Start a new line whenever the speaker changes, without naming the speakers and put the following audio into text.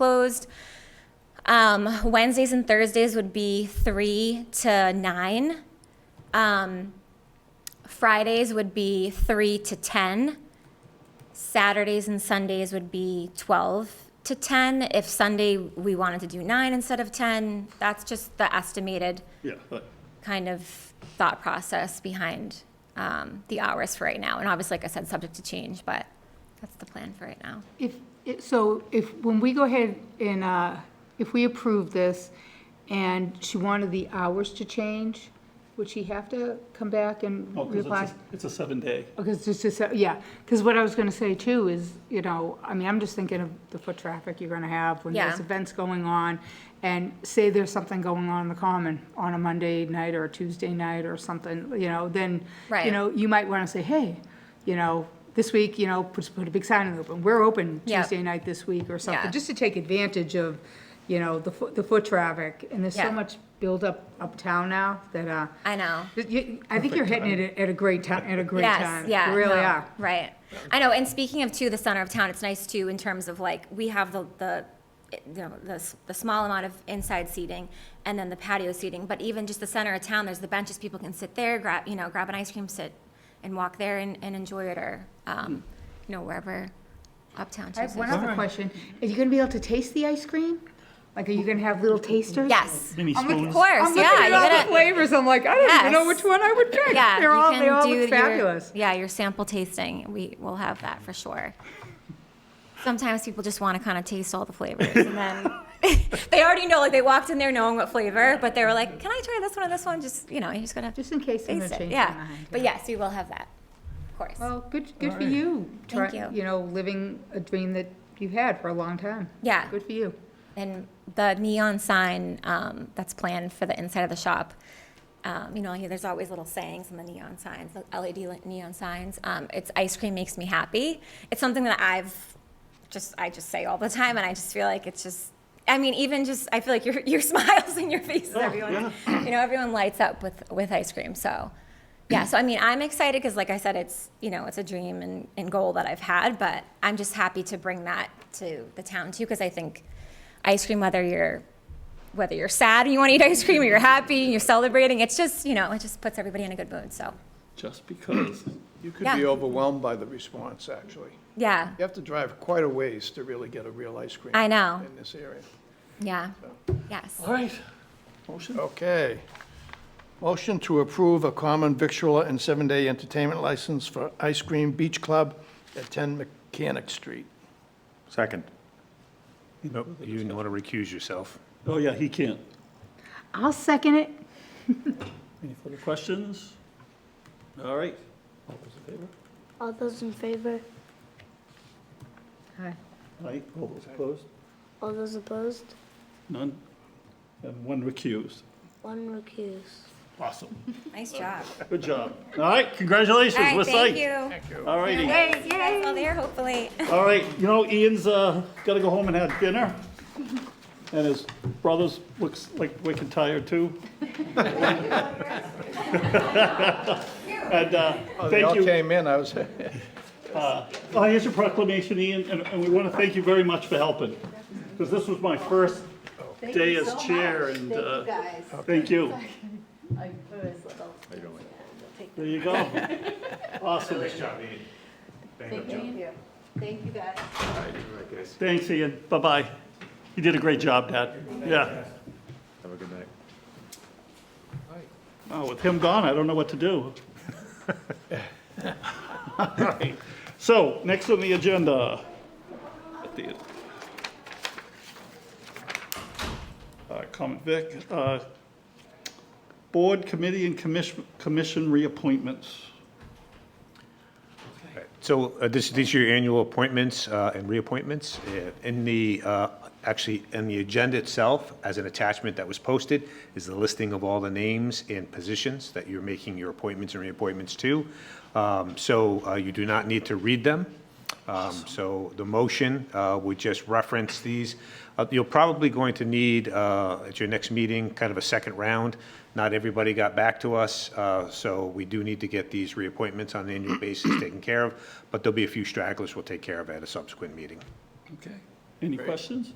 closed. Um, Wednesdays and Thursdays would be three to nine. Um, Fridays would be three to ten. Saturdays and Sundays would be twelve to ten. If Sunday we wanted to do nine instead of ten, that's just the estimated
Yeah, but
kind of thought process behind um, the hours for right now. And obviously, like I said, subject to change, but that's the plan for right now.
If, it- so if, when we go ahead and, uh, if we approve this and she wanted the hours to change, would she have to come back and
oh, 'cause
reapply?
it's, a- it's a seven day.
Because it's Oh, just, a- yeah, because what I was going to say too is, you know, I mean, I'm just thinking of the foot traffic you're going to have when there's
Yeah.
events going on. And say there's something going on in the common on a Monday night or a Tuesday night or something, you know, then,
Right.
you know, you might want to say, hey, you know, this week, you know, put, put a big sign in the open. We're open
Yeah.
Tuesday night this week or
Yeah.
something, just to take advantage of, you know, the foot, the foot traffic. And there's
Yeah.
so much buildup uptown now that, uh,
I know.
that you- I think you're hitting it at a great time, at a great
yes,
time.
yeah,
You really
no,
are.
Right. I know. And speaking of too, the center of town, it's nice too in terms of like we have the the you know the s- the small amount of inside seating and then the patio seating. But even just the center of town, there's the benches. People can sit there, grab you know grab an ice cream, sit and walk there and, and enjoy it or um, you know wherever uptown.
I have
Chooses.
one other question. Are you gonna be able to taste the ice cream? Like, are you gonna have little tasters?
Yes.
Mini
I'm looking-
spoons.
Of course,
I'm looking
yeah.
at
you
all
gotta-
the flavors, I'm like, I don't even know
Yes.
which one I would pick.
Yeah,
They're
you
all,
can
they all
do
look
your-
fabulous.
yeah, your sample tasting. We will have that for sure. Sometimes people just want to kind of taste all the flavors, and then they already know. Like they walked in there knowing what flavor, but they were like, "Can I try this one and this one?" Just you know, you're just gonna have to
Just in case I'm
taste
gonna
it.
change
Yeah,
my mind.
but yes, we will have that, of course.
Well, good, good for
Alright.
you. Try-
Thank you.
You know, living a dream that you've had for a long time.
Yeah.
Good for you.
And the neon sign um, that's planned for the inside of the shop, um, you know, here, there's always little sayings on the neon signs, the LED li- neon signs. Um, it's ice cream makes me happy. It's something that I've just I just say all the time, and I just feel like it's just. I mean, even just I feel like your your smiles and your faces, everyone, you know, everyone lights up with with ice cream. So, yeah. So I mean, I'm excited because, like I said, it's you know, it's a dream and, and goal that I've had, but I'm just happy to bring that to the town too because I think ice cream, whether you're whether you're sad and you want to eat ice cream or you're happy and you're celebrating, it's just you know, it just puts everybody in a good mood. So,
Just because.
You could
Yeah.
be overwhelmed by the response, actually.
yeah,
You have to drive quite a ways to really get a real ice cream.
I know.
In this area.
yeah, yes.
All right. Motion?
Okay. Motion to approve a common victualler and seven-day entertainment license for Ice Cream Beach Club at 10 Mechanic Street.
Second. Nope, you didn't want to recuse yourself.
Oh, yeah, he can't.
I'll second it.
Any further questions? All right. All those in favor?
All those in favor?
Hi.
Aye. All those opposed?
All those opposed?
None? And one recused.
One recused.
Awesome.
Nice job.
Good job. All right, congratulations.
All
We're
right, thank
psyched.
you.
All righty.
Yay, yay. All there, hopefully.
All right, you know, Ian's, uh, gotta go home and have dinner. And his brother's looks like wicked tired too. And, uh,
Oh, They
thank
all
you.
came in, I was,
I here's your proclamation, Ian, and, and we wanna thank you very much for helping. Cause this was my first day as chair and, uh, thank you. There you go. Awesome.
Thank you. Thank you, guys.
Thanks, Ian. Bye-bye. You did a great job, Dad. Yeah.
Have a good night.
Oh, with him gone, I don't know what to do. All right. So, next on the agenda. at the- Uh, Comment Vic, uh, Board, Committee, and Commission, Commission reappointments.
So uh, this, these are your annual appointments uh, and reappointments. Uh, In the, uh, actually, in the agenda itself, as an attachment that was posted, is the listing of all the names and positions that you're making your appointments and reappointments to. Um, So uh, you do not need to read them. Um, So the motion uh, would just reference these. Uh, You're probably going to need, uh, at your next meeting, kind of a second round. Not everybody got back to us, uh, so we do need to get these reappointments on an annual basis taken care of, but there'll be a few stragglers we'll take care of at a subsequent meeting.
Okay. Any questions?